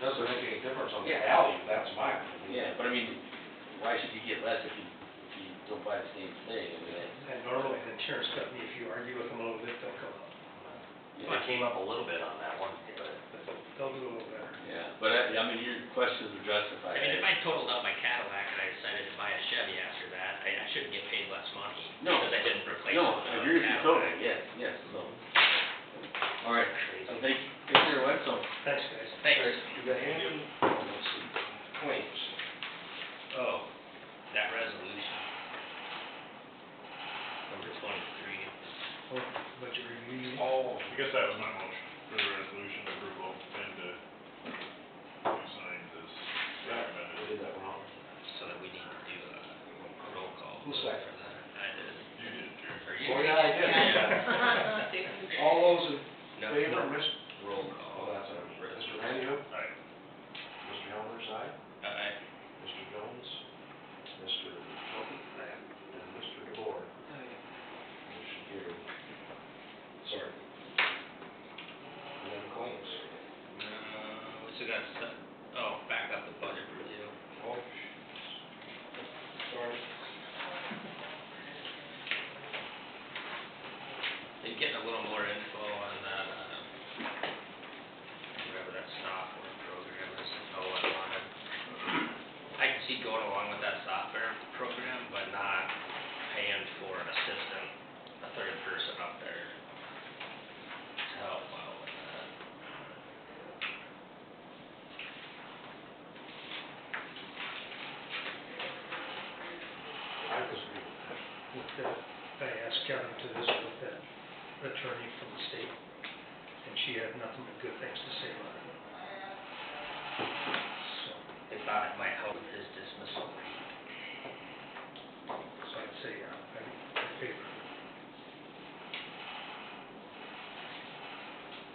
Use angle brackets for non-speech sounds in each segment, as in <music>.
doesn't make any difference on the Yeah. value, that's my opinion. Yeah, but I mean, why should you get less if you, if you don't buy the same thing, I mean, that's, And normally the insurance company, if you argue with them a little bit, they'll come up. yeah. It came up a little bit on that one, but. They'll do a little better. Yeah, but I, I mean, your questions are I justified. mean, if I totaled out my Cadillac and I decided to buy a Chevy after that, I, I shouldn't get paid less money. No. Because I didn't replace. No, the I agree with you Cadillac. totally, yes, yes, so. All right, Crazy. I think, Commissioner Wetzel. Thanks, guys. Thanks. You got any complaints? Oh, that resolution. Number twenty-three. Well, Budget review. Oh, I guess that was my motion, for the resolution approval, and to sign this I recommended. did that wrong. So that we need to do a roll call. Who vote for seconded that. I did. You did, Jerry. Or you? Oh, yeah, I did. <laughs> All those in <laughs> No. favor, Miss, Roll oh, call. that's, a- Mr. Resolution. Manu, Aye. Mr. Helmer's aye, Aye. Mr. Jones, Mr. Hilton, and Mr. DeBoer. Motion carried. Sorry. And then claims. Uh, we still got stuff, oh, back up the budget review. Oh, sorry. Been getting a little more info on, uh, whatever that software program is, oh, I wanted. I can see going along with that software program, but not paying for an assistant, a third person up there to help out with that. I disagree with that. with the, I asked Kevin to this with the attorney from the state, and she had nothing but good things to say about it. So, They thought it might help with his dismissal rate. so I'd say, uh, I'm in favor.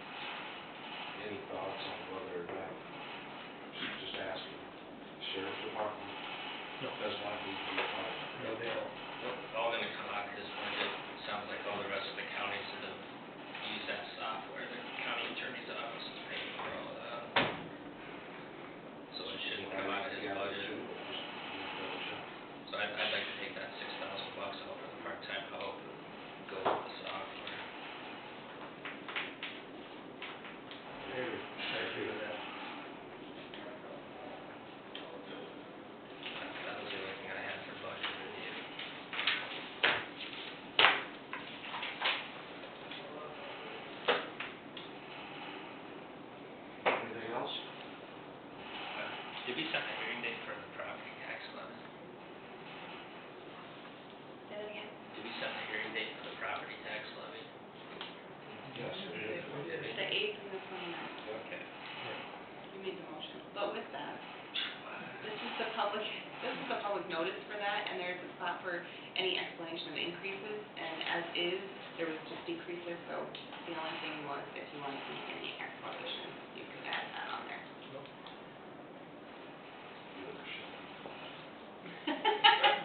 Any thoughts on whether or not, she's just asking, sheriff's department No, does not need to be fined. no, they don't. all gonna come out of this one, it sounds like all the rest of the counties that have used that software, the county attorney's office is paying for all of that. So it shouldn't come out of his budget, so I'd, I'd like to take that six thousand bucks out for the part-time help, and go with the software. Maybe, I agree with That that. was the only thing I had for budget review. Anything else? Did we set a hearing date for the property tax levy? Did we set a hearing date for the property tax levy? Yes. The eighth and the twenty-ninth, Okay. you made the motion. But with that, this is the public, this is the public notice for that, and there's a spot for any explanation of increases, and as is, there was just decreases, so the only thing was if you wanted to make any explanation, you could add that on there.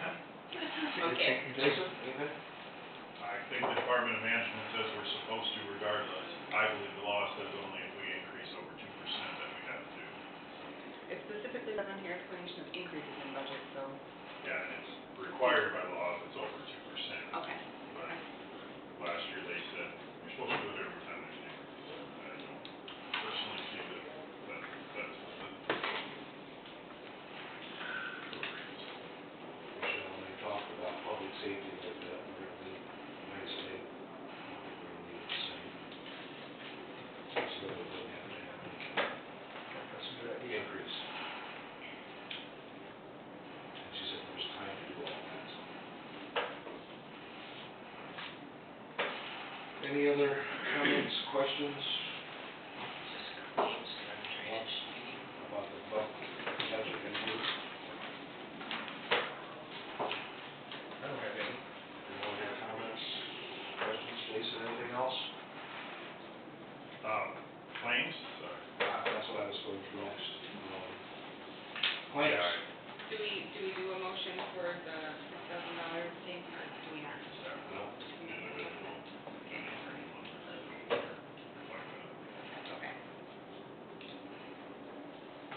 Okay. Jason, anything? I think the Department of Management says we're supposed to regardless. I believe the law says only if we increase over two percent that we have to. It specifically says on here explanation of increases in budget, so, Yeah, and it's required by law if it's over two percent. okay. But last year they said, you're supposed to do it every time there's an increase. I don't personally see that, that, that's what the. Michelle, when they talked about public safety, that that really, United States, really the same. It's really what we have to have, That's a the good idea. increase. And she said there's time to do all that. so. Any other comments, questions Just claims and then drainage. about the bu- budget and group? I don't have any. Any other comments, questions, Jason, anything else? Um, claims, sorry. Uh, That's what I was going through next. Um, Yeah, Claims. Um,